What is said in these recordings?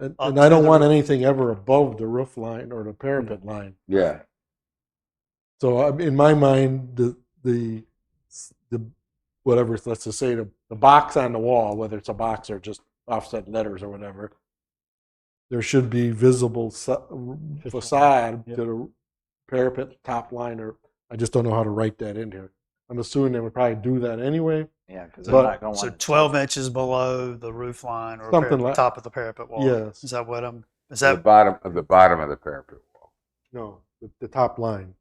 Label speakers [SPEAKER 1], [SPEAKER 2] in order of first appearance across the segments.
[SPEAKER 1] And,
[SPEAKER 2] Up
[SPEAKER 1] and I
[SPEAKER 2] to
[SPEAKER 1] don't
[SPEAKER 2] the
[SPEAKER 1] want
[SPEAKER 2] roof. Mm-hmm.
[SPEAKER 1] anything ever above the roof line or the parapet line.
[SPEAKER 3] Yeah.
[SPEAKER 1] So I'm- in my mind, the, the, the, whatever, let's just say the, the box on the wall, whether it's a box or just offset letters or whatever, there should be visible sa- facade
[SPEAKER 2] yeah.
[SPEAKER 1] to the parapet top line, or I just don't know how to write that in here. I'm assuming they would probably do that anyway.
[SPEAKER 4] Yeah, because
[SPEAKER 1] But-
[SPEAKER 4] they're not going.
[SPEAKER 2] So 12 inches below the roof line or
[SPEAKER 1] Something
[SPEAKER 2] parapet-
[SPEAKER 1] like-
[SPEAKER 2] top of the parapet wall.
[SPEAKER 1] Yes.
[SPEAKER 2] Is that what I'm, is
[SPEAKER 3] The
[SPEAKER 2] that,
[SPEAKER 3] bottom of the bottom of the parapet wall.
[SPEAKER 1] No, the, the top line.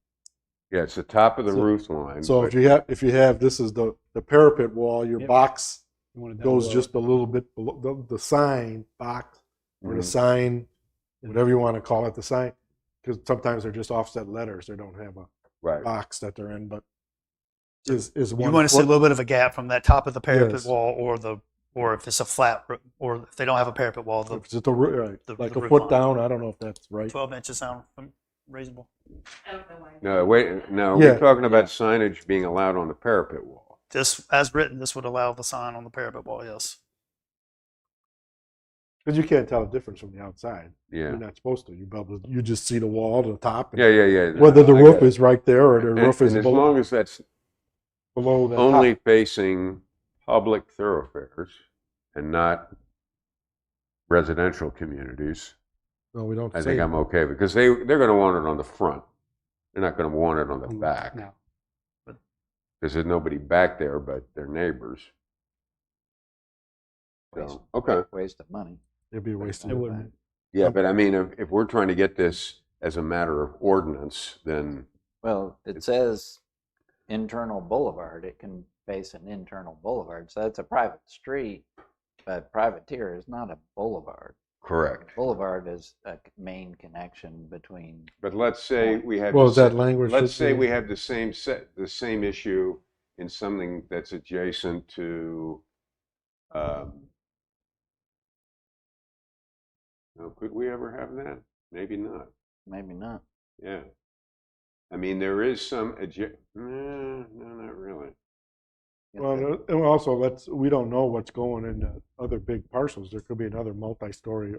[SPEAKER 3] Yeah, it's the top of the
[SPEAKER 1] So-
[SPEAKER 3] roof line.
[SPEAKER 1] So
[SPEAKER 3] but-
[SPEAKER 1] if you have, if you have, this is the, the parapet wall, your
[SPEAKER 4] Yep.
[SPEAKER 1] box
[SPEAKER 4] You want it down
[SPEAKER 1] goes
[SPEAKER 4] low.
[SPEAKER 1] just a little bit below, the, the sign box, or the
[SPEAKER 3] Mhm.
[SPEAKER 1] sign, whatever you want to call it, the sign, because sometimes they're just offset letters. They don't have a
[SPEAKER 3] right.
[SPEAKER 1] box that they're in, but is is one.
[SPEAKER 2] you want to see a
[SPEAKER 1] foot-
[SPEAKER 2] little bit of a gap from that top of the parapet
[SPEAKER 1] Yes.
[SPEAKER 2] wall or the, or if it's a flat, roo- or if they don't have a parapet wall, the
[SPEAKER 1] if it's just a roo- right,
[SPEAKER 2] the-
[SPEAKER 1] like
[SPEAKER 2] the
[SPEAKER 1] a
[SPEAKER 2] roof
[SPEAKER 1] foot
[SPEAKER 2] line.
[SPEAKER 1] down. I don't know if that's right.
[SPEAKER 2] 12 inches sound reasonable?
[SPEAKER 5] I don't know why.
[SPEAKER 3] No, wait. No,
[SPEAKER 1] Yeah.
[SPEAKER 3] we're talking about signage being allowed on the parapet wall.
[SPEAKER 2] This, as written, this would allow the sign on the parapet wall, yes.
[SPEAKER 1] Because you can't tell the difference from the outside.
[SPEAKER 3] Yeah.
[SPEAKER 1] You're not supposed to. You probably, you just see the wall, the top. and
[SPEAKER 3] Yeah, yeah, yeah. no,
[SPEAKER 1] Whether the
[SPEAKER 3] I
[SPEAKER 1] roof
[SPEAKER 3] got it.
[SPEAKER 1] is right there or the
[SPEAKER 3] And-
[SPEAKER 1] roof is
[SPEAKER 3] and as
[SPEAKER 1] below,
[SPEAKER 3] long as that's
[SPEAKER 1] below the top.
[SPEAKER 3] only facing public thoroughfares and not residential communities,
[SPEAKER 1] No, we don't
[SPEAKER 3] I
[SPEAKER 1] say
[SPEAKER 3] think I'm okay because they they're going to want it on the front. They're not going to want it on the
[SPEAKER 1] Mm,
[SPEAKER 3] back.
[SPEAKER 2] no. But-
[SPEAKER 3] Because there's nobody back there but their neighbors. So, okay.
[SPEAKER 4] Waste of money.
[SPEAKER 1] it'd be a waste of
[SPEAKER 4] It
[SPEAKER 1] time.
[SPEAKER 4] wouldn't.
[SPEAKER 3] Yeah,
[SPEAKER 1] Um,
[SPEAKER 3] but I mean, if, if we're trying to get this as a matter of ordinance, then
[SPEAKER 4] Well, it says internal boulevard, it can face an internal boulevard, so that's a private street, but privateer is not a boulevard.
[SPEAKER 3] correct.
[SPEAKER 4] Boulevard is a c- main connection between,
[SPEAKER 3] But let's say we have.
[SPEAKER 1] Well,
[SPEAKER 3] the
[SPEAKER 1] is that
[SPEAKER 3] sa-
[SPEAKER 1] language?
[SPEAKER 3] Let's
[SPEAKER 1] that's
[SPEAKER 3] say
[SPEAKER 1] in-
[SPEAKER 3] we have the same set, the same issue in something that's adjacent to, um, now, could we ever have that? Maybe not,
[SPEAKER 4] maybe not.
[SPEAKER 3] yeah. I mean, there is some adja, no, no, not really.
[SPEAKER 4] You know,
[SPEAKER 1] Well, and also, let's, we don't know what's going in the other big parcels. There could be another multi-story.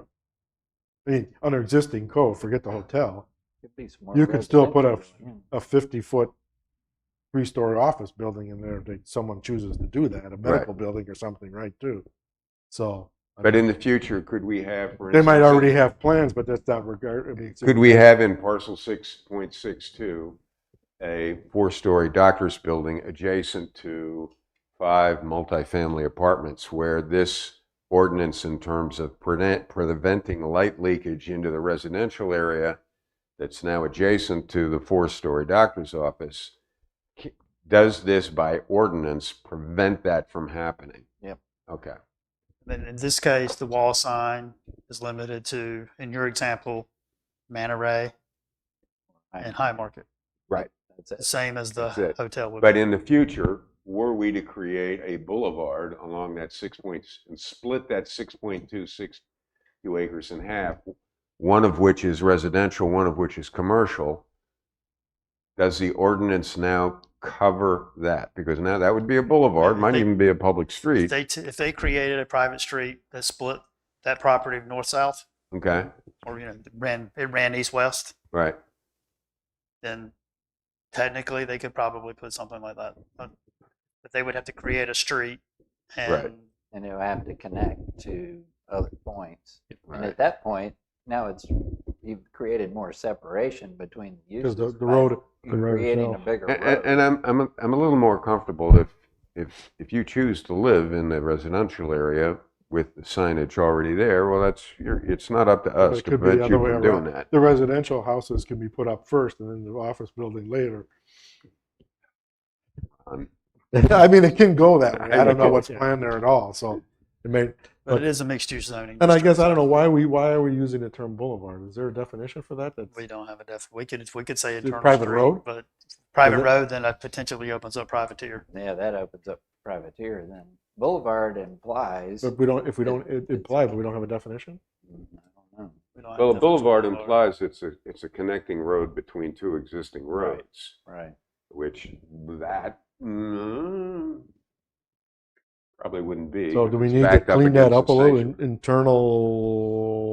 [SPEAKER 1] I mean, under existing code, forget the hotel,
[SPEAKER 4] could be some more
[SPEAKER 1] you could still put a-
[SPEAKER 4] residential going in.
[SPEAKER 1] a fifty-foot, three-story office building in there if they- someone chooses to do that, a medical building or something, right, too. So. I
[SPEAKER 3] But
[SPEAKER 1] mean,
[SPEAKER 3] in the future, could we have, for
[SPEAKER 1] They might
[SPEAKER 3] instance, a-
[SPEAKER 1] already have plans, but that's not regard, I mean. it's-
[SPEAKER 3] Could we have in parcel six point six two, a four-story doctor's building adjacent to five multifamily apartments where this ordinance in terms of prevent, preventing light leakage into the residential area that's now adjacent to the four-story doctor's office, c- does this by ordinance prevent that from happening?
[SPEAKER 4] Yep.
[SPEAKER 3] Okay,
[SPEAKER 2] Then in this case, the wall sign is limited to, in your example, Manor Ray
[SPEAKER 4] Right.
[SPEAKER 2] and High Market,
[SPEAKER 4] That's it.
[SPEAKER 2] same as the
[SPEAKER 3] That's it.
[SPEAKER 2] hotel would be.
[SPEAKER 3] but in the future, were we to create a boulevard along that six points and split that six point two six two acres in half, one of which is residential, one of which is commercial, does the ordinance now cover that? Because now that would be a boulevard, might even be a public
[SPEAKER 2] If
[SPEAKER 3] street.
[SPEAKER 2] they, t- if they created a private street that split that property north-south,
[SPEAKER 3] Okay,
[SPEAKER 2] or, you know, ran, it ran east-west,
[SPEAKER 3] right.
[SPEAKER 2] then technically they could probably put something like that. But but they would have to create a street
[SPEAKER 3] Right.
[SPEAKER 2] and
[SPEAKER 4] And it would have to connect to other points. And
[SPEAKER 3] right.
[SPEAKER 4] at that point, now it's, you've created more separation between the uses.
[SPEAKER 1] Because the, the
[SPEAKER 4] by
[SPEAKER 1] road, the
[SPEAKER 4] You're
[SPEAKER 1] road
[SPEAKER 4] creating a
[SPEAKER 1] itself.
[SPEAKER 4] bigger
[SPEAKER 3] And, and,
[SPEAKER 4] road.
[SPEAKER 3] and I'm, I'm, a, I'm a little more comfortable if, if, if you choose to live in the residential area with the signage already there, well, that's, your it's not up to
[SPEAKER 1] But
[SPEAKER 3] us
[SPEAKER 1] it
[SPEAKER 3] to
[SPEAKER 1] could be the
[SPEAKER 3] prevent you
[SPEAKER 1] other way
[SPEAKER 3] from doing
[SPEAKER 1] around.
[SPEAKER 3] that.
[SPEAKER 1] The residential houses can be put up first and then the office building later.
[SPEAKER 3] Um,
[SPEAKER 1] I mean, it can go that way. I
[SPEAKER 3] I
[SPEAKER 1] don't know
[SPEAKER 3] get it,
[SPEAKER 1] what's
[SPEAKER 2] yeah.
[SPEAKER 1] planned there at all, so it may,
[SPEAKER 2] But
[SPEAKER 1] But-
[SPEAKER 2] it is a mixed-use zoning.
[SPEAKER 1] And I
[SPEAKER 2] district,
[SPEAKER 1] guess I
[SPEAKER 2] so
[SPEAKER 1] don't know why we why are we using the term boulevard? Is there a definition for that? That's
[SPEAKER 2] We don't have a def, we could, we could say
[SPEAKER 1] it
[SPEAKER 2] internal
[SPEAKER 1] private
[SPEAKER 2] street,
[SPEAKER 1] road?
[SPEAKER 2] But private
[SPEAKER 1] that-
[SPEAKER 2] road, then that potentially opens up privateer.
[SPEAKER 4] Yeah, that opens up privateer then. Boulevard implies, I
[SPEAKER 1] but we don't if we don't it implies but we don't have a definition.
[SPEAKER 4] Hmm, don't know.
[SPEAKER 2] We don't have
[SPEAKER 3] Well, a
[SPEAKER 2] definition of
[SPEAKER 3] boulevard implies it's a, it's a connecting road between two existing roads,
[SPEAKER 4] right,
[SPEAKER 3] which that, mm, probably wouldn't be.
[SPEAKER 1] So
[SPEAKER 3] because
[SPEAKER 1] do we
[SPEAKER 3] it's
[SPEAKER 1] need to
[SPEAKER 3] backed
[SPEAKER 1] clean
[SPEAKER 3] against
[SPEAKER 1] that up
[SPEAKER 3] the
[SPEAKER 1] a little?
[SPEAKER 3] station.
[SPEAKER 1] In- internal